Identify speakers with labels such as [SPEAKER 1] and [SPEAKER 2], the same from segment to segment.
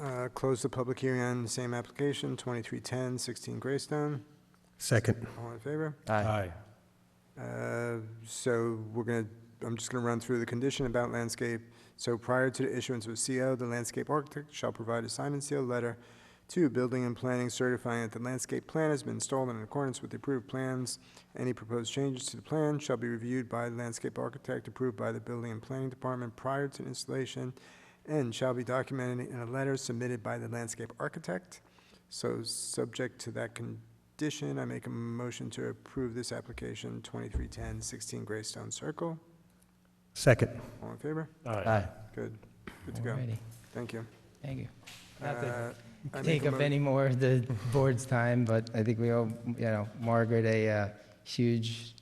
[SPEAKER 1] uh, close the public hearing on the same application, 2310, 16 Greystone.
[SPEAKER 2] Second.
[SPEAKER 1] All in favor?
[SPEAKER 2] Aye.
[SPEAKER 1] Uh, So we're going to, I'm just going to run through the condition about landscape. So prior to the issuance of a CO, the landscape architect shall provide a signed and sealed letter to building and planning certifying that the landscape plan has been installed in accordance with the approved plans. Any proposed changes to the plan shall be reviewed by the landscape architect approved by the building and planning department prior to installation and shall be documented in a letter submitted by the landscape architect. So, subject to that condition, I make a motion to approve this application, 2310, 16 Greystone Circle.
[SPEAKER 2] Second.
[SPEAKER 1] All in favor?
[SPEAKER 3] Aye.
[SPEAKER 1] Good, good to go.
[SPEAKER 3] Alrighty,
[SPEAKER 1] Thank you.
[SPEAKER 3] thank you. Not to
[SPEAKER 1] Uh, I make
[SPEAKER 3] take
[SPEAKER 1] a
[SPEAKER 3] up
[SPEAKER 1] mo-
[SPEAKER 3] any more of the board's time, but I think we owe, you know, Margaret a uh, huge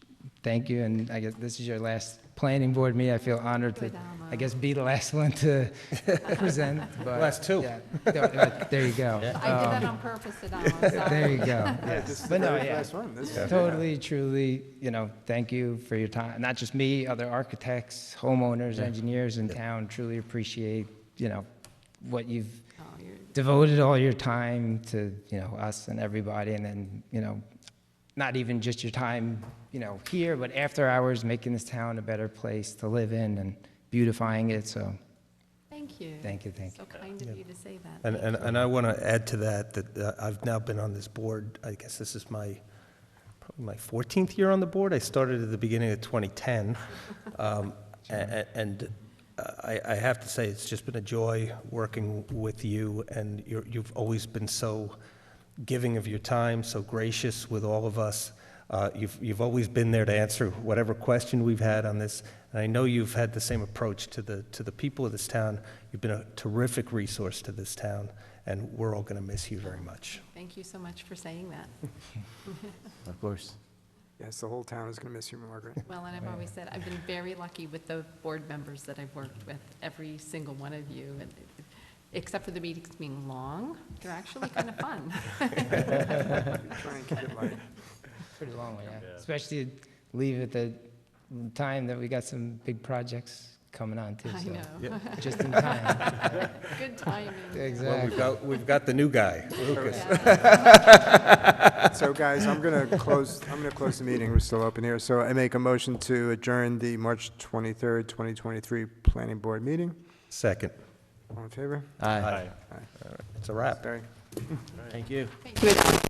[SPEAKER 3] thank you, and I guess this is your last planning board meeting. I feel honored to, I guess, be the last one to present, but.
[SPEAKER 2] Last two.
[SPEAKER 3] yeah. No, uh, There you go.
[SPEAKER 4] I did that
[SPEAKER 3] Um,
[SPEAKER 4] on purpose, Adamo,
[SPEAKER 3] There
[SPEAKER 4] sorry.
[SPEAKER 3] you go,
[SPEAKER 1] Yeah,
[SPEAKER 3] yes.
[SPEAKER 1] This is the
[SPEAKER 3] But no,
[SPEAKER 1] very
[SPEAKER 3] yeah.
[SPEAKER 1] last one. This is-
[SPEAKER 3] Totally, truly, you know, thank you for your time. Not just me, other architects, homeowners, engineers in town truly appreciate, you know, what you've
[SPEAKER 4] Oh, you're-
[SPEAKER 3] devoted all your time to, you know, us and everybody. And then, you know, not even just your time, you know, here, but after hours, making this town a better place to live in and beautifying it. So
[SPEAKER 4] Thank you.
[SPEAKER 3] thank you, thank you.
[SPEAKER 4] So kind of you to say that.
[SPEAKER 2] And, and, and I want to add to that, that uh, I've now been on this board, I guess this is my, probably my 14th year on the board. I started at the beginning of 2010. Um, a- a- And uh, I, I have to say, it's just been a joy working with you, and you're, you've always been so giving of your time, so gracious with all of us. Uh, You've, you've always been there to answer whatever question we've had on this, and I know you've had the same approach to the, to the people of this town. You've been a terrific resource to this town, and we're all going to miss you very much.
[SPEAKER 4] Thank you so much for saying that.
[SPEAKER 5] Of course.
[SPEAKER 1] Yes, the whole town is going to miss you, Margaret.
[SPEAKER 4] Well,
[SPEAKER 3] Oh,
[SPEAKER 4] and I've always said, I've been very lucky with the board members that I've worked with, every single one of you, and except for the meetings being long, they're actually kind of fun.
[SPEAKER 1] Try and keep it light.
[SPEAKER 3] Pretty long way, yeah. Especially leave at the time that we got some big projects coming on too.
[SPEAKER 4] I
[SPEAKER 3] so
[SPEAKER 4] know,
[SPEAKER 3] Just in time.
[SPEAKER 4] good timing.
[SPEAKER 2] Well,
[SPEAKER 3] Exactly.
[SPEAKER 2] we've got, we've got the new guy, Lucas.
[SPEAKER 4] Yeah.
[SPEAKER 1] So guys, I'm going to close, I'm going to close the meeting. We're still open here. So I make a motion to adjourn the March 23rd, 2023 Planning Board meeting.
[SPEAKER 2] Second.
[SPEAKER 1] All in favor?
[SPEAKER 5] Aye.
[SPEAKER 2] It's a wrap.
[SPEAKER 1] Sorry.
[SPEAKER 5] Thank you.
[SPEAKER 4] Thank you.